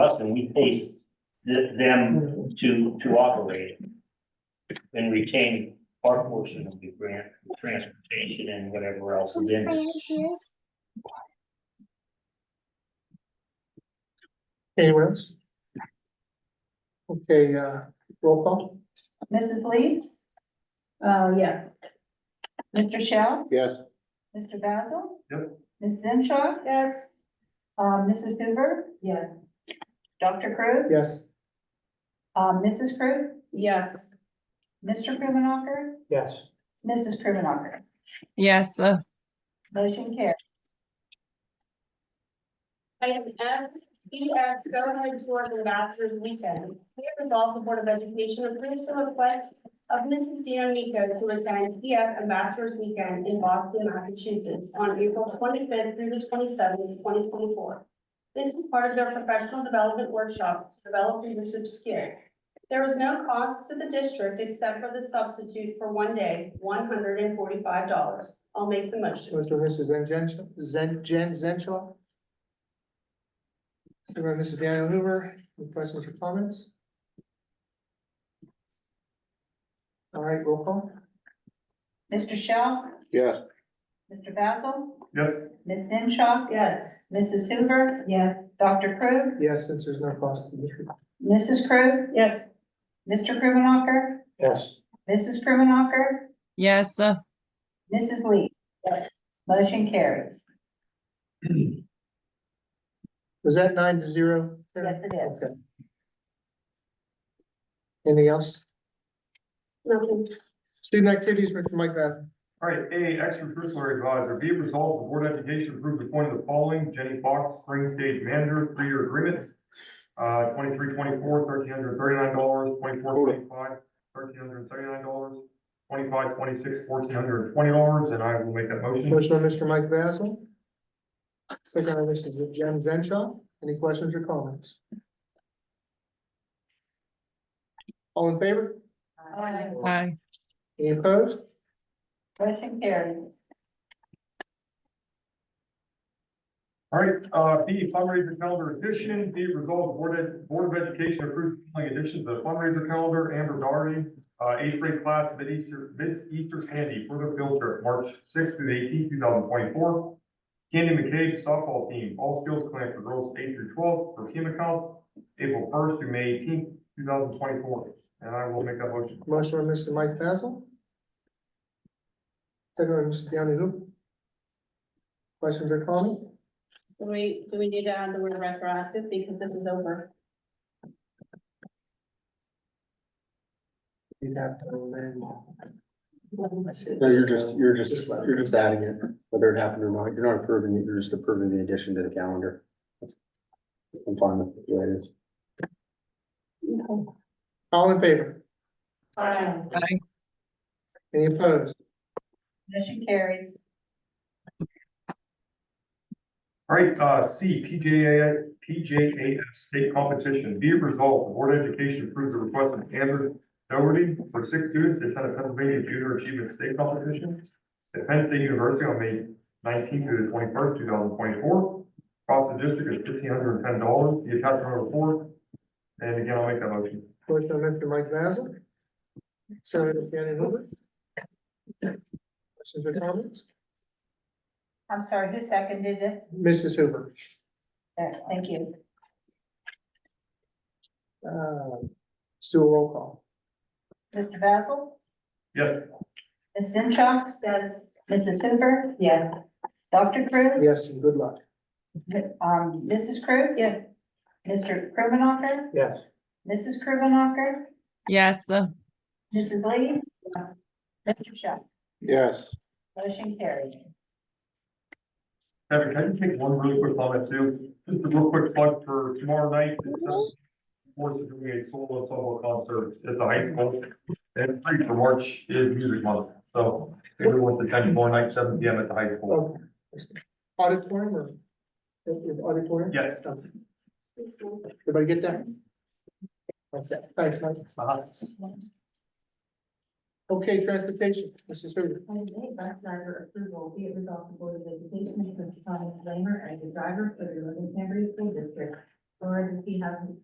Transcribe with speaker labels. Speaker 1: trust and we pay th- them to, to operate it and retain our portion of the grant, transportation and whatever else is in it.
Speaker 2: Anyone else? Okay, uh, roll call?
Speaker 3: Mrs. Lee? Uh, yes. Mr. Shell?
Speaker 2: Yes.
Speaker 3: Mr. Basil?
Speaker 1: Yep.
Speaker 3: Ms. Zenshaw? Yes. Um, Mrs. Hoover? Yes. Dr. Crew?
Speaker 2: Yes.
Speaker 3: Um, Mrs. Crew? Yes. Mr. Krimenacher?
Speaker 2: Yes.
Speaker 3: Mrs. Krimenacher?
Speaker 4: Yes, uh,
Speaker 3: Motion carries.
Speaker 5: Item F, B F, Go Ahead Tours Ambassadors Weekend. Be it resolved, the Board of Education approves the request of Mrs. Dan Nico to attend B F Ambassadors Weekend in Boston, Massachusetts on April twenty-fifth through the twenty-seventh, twenty twenty-four. This is part of their professional development workshops to develop leadership skills. There is no cost to the district except for the substitute for one day, one hundred and forty-five dollars. I'll make the motion.
Speaker 2: Mr. and Mrs. Zen Genshaw, Zen, Jen Zenshaw. Second by Mrs. Daniel Hoover, any questions or comments? All right, roll call?
Speaker 3: Mr. Shell?
Speaker 2: Yes.
Speaker 3: Mr. Basil?
Speaker 1: Yes.
Speaker 3: Ms. Zenshaw?
Speaker 5: Yes.
Speaker 3: Mrs. Hoover?
Speaker 5: Yes.
Speaker 3: Dr. Crew?
Speaker 2: Yes, since there's no cost to the district.
Speaker 3: Mrs. Crew?
Speaker 5: Yes.
Speaker 3: Mr. Krimenacher?
Speaker 2: Yes.
Speaker 3: Mrs. Krimenacher?
Speaker 4: yes, uh,
Speaker 3: Mrs. Lee?
Speaker 5: Yes.
Speaker 3: Motion carries.
Speaker 2: Was that nine to zero? Karen?
Speaker 3: Yes, it is.
Speaker 2: Okay. Anything else?
Speaker 5: Nothing.
Speaker 2: Student activities, Mr. Mike uh, Bath.
Speaker 6: All right, A, extracurricular advisor, be it resolved, the Board of Education approves appointing the following, Jenny Fox, spring stage manager, three-year agreement. Uh, twenty-three, twenty-four, thirteen hundred thirty-nine dollars, twenty-four, twenty-five, thirteen hundred seventy-nine dollars, twenty-five, twenty-six, fourteen hundred twenty dollars, and I will make that motion.
Speaker 2: Motion by Mr. Mike Basil. Second by Mrs. Jen Zenshaw. Any questions or comments? All in favor?
Speaker 3: Aye.
Speaker 4: aye,
Speaker 2: Any opposed?
Speaker 3: Motion carries.
Speaker 6: All right, uh, B, fundraiser calendar addition, be it resolved, the Board of, Board of Education approved the addition to the fundraiser calendar, Amber Doherty, uh, eighth grade class, mid Easter, mid Easter candy, further field trip, March sixth through the eighteenth, two thousand twenty-four. Candy McCabe softball team, all skills clinic for girls eight through twelve for chemical, April first through May eighteenth, two thousand twenty-four. And I will make that motion.
Speaker 2: Motion by Mr. Mike Basil. Second by Mr. Deanna Hoop. Questions or comments?
Speaker 5: Do we, do we need to add the word retroactive because this is over?
Speaker 2: You'd have to amend.
Speaker 7: No, you're just, you're just,
Speaker 2: Just let it.
Speaker 7: you're just adding it, whether it happened or not. You're not approving it, you're just approving the addition to the calendar. I'm fine with it the way it is.
Speaker 2: All in favor?
Speaker 5: Aye.
Speaker 4: aye,
Speaker 2: Any opposed?
Speaker 3: Motion carries.
Speaker 6: All right, uh, C, PJA, PJAF state competition, be it resolved, the Board of Education approves the request of Andrew Doherty for six students to attend a Pennsylvania Junior Achievement State Competition at Penn State University on May nineteenth through the twenty-first, two thousand twenty-four. Cost to district is fifteen hundred and ten dollars, the attachment report, and again, I'll make that motion.
Speaker 2: Motion by Mr. Mike Basil. Second by Mr. Deanna Hoop. Questions or comments?
Speaker 3: I'm sorry, who seconded it?
Speaker 2: Mrs. Hoover.
Speaker 3: There, Thank you.
Speaker 2: Um, Let's do a roll call.
Speaker 3: Mr. Basil?
Speaker 6: Yes.
Speaker 3: Ms. Zenshaw? Yes. Mrs. Hoover? Yes. Dr. Crew?
Speaker 2: Yes, and good luck.
Speaker 3: Um, Mrs. Crew? Yes. Mr. Krimenacher?
Speaker 2: Yes.
Speaker 3: Mrs. Krimenacher?
Speaker 4: yes, uh,
Speaker 3: Mrs. Lee? Mr. Shell?
Speaker 2: Yes.
Speaker 3: Motion carries.
Speaker 6: Kevin, can I just make one really quick comment too? Just a real quick plug for tomorrow night. uh, Force is doing a solo solo concert at the high school. And free for March is music month, so everyone's attending tomorrow night, seven P M at the high school.
Speaker 2: Okay. Auditorium or? Auditorium?
Speaker 6: Yes.
Speaker 2: Everybody get that? Okay, thanks, Mike. Okay, transportation, Mrs. Hoover.
Speaker 8: Item eight, bus driver approval, be it resolved, the Board of Education, because Thomas Flamer as the driver for the Livingston School District
Speaker 5: or if he hasn't